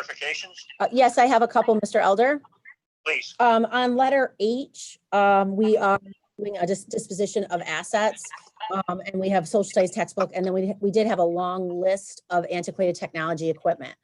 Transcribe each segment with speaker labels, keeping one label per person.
Speaker 1: clarifications,
Speaker 2: Uh, Yes, I have a couple, Mr. Elder.
Speaker 1: please?
Speaker 2: Um, on letter H, um, we are doing a dis- disposition of assets. Um, and we have social studies textbook, and then we, we did have a long list of antiquated technology equipment.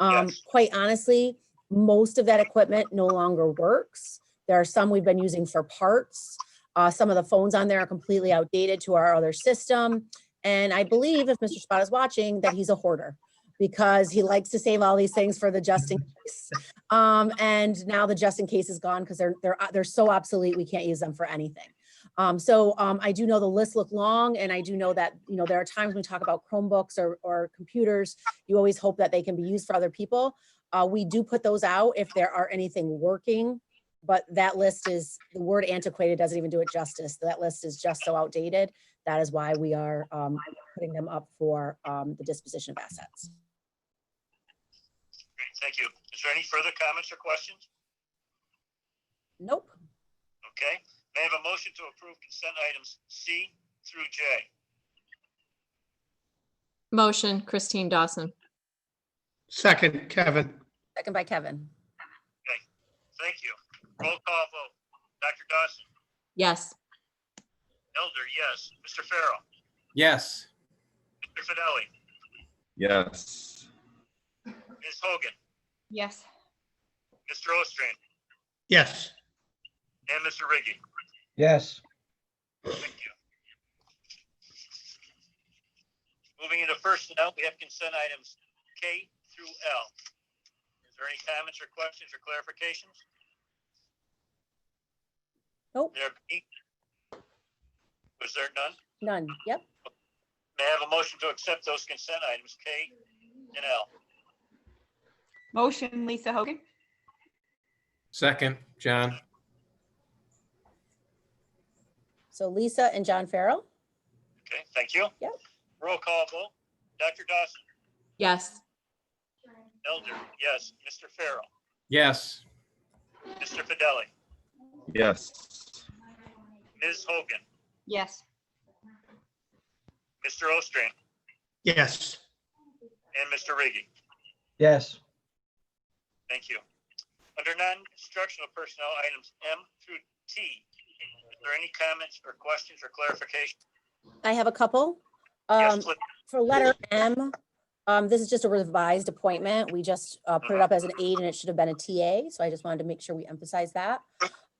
Speaker 2: Um,
Speaker 1: Yes.
Speaker 2: quite honestly, most of that equipment no longer works. There are some we've been using for parts. Uh, some of the phones on there are completely outdated to our other system. And I believe if Mr. Spot is watching, that he's a hoarder because he likes to save all these things for the just in case. Um, and now the just in case is gone because they're, they're, uh, they're so obsolete, we can't use them for anything. Um, so, um, I do know the list look long and I do know that, you know, there are times when we talk about Chromebooks or, or computers, you always hope that they can be used for other people. Uh, we do put those out if there are anything working, but that list is, the word antiquated doesn't even do it justice. That list is just so outdated. That is why we are, um, putting them up for, um, the disposition of assets.
Speaker 1: Great, Thank you. Is there any further comments or questions?
Speaker 2: Nope.
Speaker 1: Okay, may I have a motion to approve consent items C through J?
Speaker 3: Motion, Christine Dawson.
Speaker 4: Second, Kevin.
Speaker 2: Second by Kevin.
Speaker 1: Thank you. Roll call vote. Dr. Dawson,
Speaker 3: Yes.
Speaker 1: Elder, yes. Mr. Farrell,
Speaker 5: Yes.
Speaker 1: Mr. Fidelli,
Speaker 6: Yes.
Speaker 1: Ms. Hogan,
Speaker 3: Yes.
Speaker 1: Mr. Ostrander,
Speaker 4: Yes,
Speaker 1: and Mr. Riggi.
Speaker 7: yes,
Speaker 1: Thank you. Moving into personnel, we have consent items K through L. Is there any comments or questions or clarifications?
Speaker 2: Nope.
Speaker 1: There be? Was there none?
Speaker 2: None. Yep.
Speaker 1: May I have a motion to accept those consent items K and L?
Speaker 8: Motion, Lisa Hogan?
Speaker 5: Second, John.
Speaker 2: So Lisa and John Farrell?
Speaker 1: Okay, thank you.
Speaker 2: Yep.
Speaker 1: Roll call vote. Dr. Dawson,
Speaker 3: Yes.
Speaker 1: Elder, yes. Mr. Farrell,
Speaker 5: Yes.
Speaker 1: Mr. Fidelli,
Speaker 6: Yes.
Speaker 1: Ms. Hogan,
Speaker 8: Yes.
Speaker 1: Mr. Ostrander,
Speaker 4: yes,
Speaker 1: and Mr. Riggi.
Speaker 7: yes,
Speaker 1: Thank you. Under non-instructional personnel, items M through T, is there any comments or questions or clarification?
Speaker 2: I have a couple. Um,
Speaker 1: Yes, please.
Speaker 2: for letter M, um, this is just a revised appointment. We just, uh, put it up as an aide and it should have been a TA, so I just wanted to make sure we emphasize that.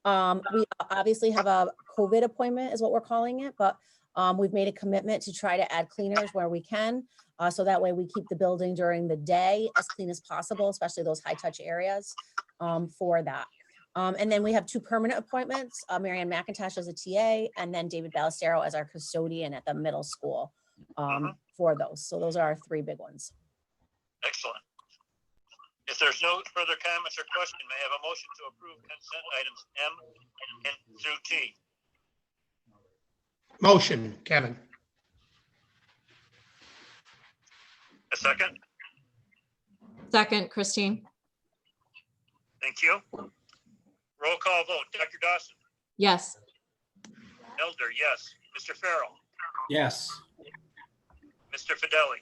Speaker 2: Um, we obviously have a COVID appointment is what we're calling it, but, um, we've made a commitment to try to add cleaners where we can. Uh, so that way we keep the building during the day as clean as possible, especially those high-touch areas, um, for that. Um, and then we have two permanent appointments, uh, Marianne McIntosh as a TA and then David Ballestero as our custodian at the middle school um, for those. So those are our three big ones.
Speaker 1: Excellent. If there's no further comments or question, may I have a motion to approve consent items M and through T?
Speaker 4: motion, Kevin.
Speaker 1: A second?
Speaker 3: Second, Christine.
Speaker 1: Thank you. Roll call vote. Dr. Dawson,
Speaker 3: Yes.
Speaker 1: Elder, yes. Mr. Farrell,
Speaker 5: Yes.
Speaker 1: Mr. Fidelli,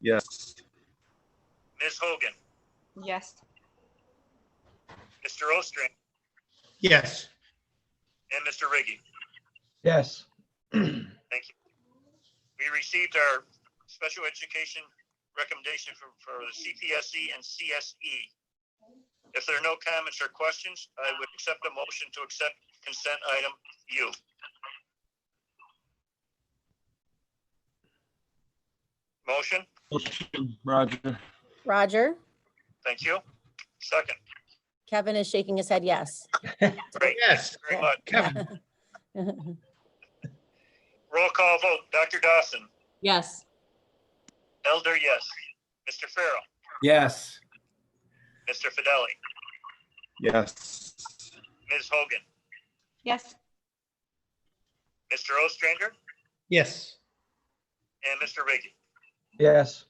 Speaker 6: Yes.
Speaker 1: Ms. Hogan,
Speaker 8: Yes.
Speaker 1: Mr. Ostrander,
Speaker 4: Yes,
Speaker 1: and Mr. Riggi.
Speaker 7: yes,
Speaker 1: we received our special education recommendation for, for the CPSE E and CSE. If there are no comments or questions, I would accept a motion to accept consent item U. Motion,
Speaker 6: Roger.
Speaker 2: Roger,
Speaker 1: thank you. Second,
Speaker 2: Kevin is shaking his head yes.
Speaker 1: great,
Speaker 4: yes,
Speaker 1: very much.
Speaker 4: Kevin.
Speaker 1: Roll call vote, Dr. Dawson,
Speaker 3: Yes.
Speaker 1: Elder, yes. Mr. Farrell,
Speaker 5: Yes.
Speaker 1: Mr. Fidelli,
Speaker 6: Yes.
Speaker 1: Ms. Hogan,
Speaker 8: Yes.
Speaker 1: Mr. Ostrander,
Speaker 4: Yes,
Speaker 1: and Mr. Riggi.
Speaker 7: yes,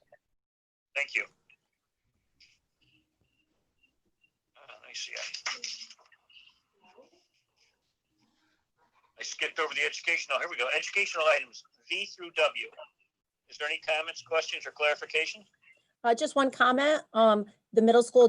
Speaker 1: Thank you. Uh, Let me see. I skipped over the educational. Here we go. Educational items, V through W. Is there any comments, questions, or clarification?
Speaker 2: Uh, just one comment, um, the middle school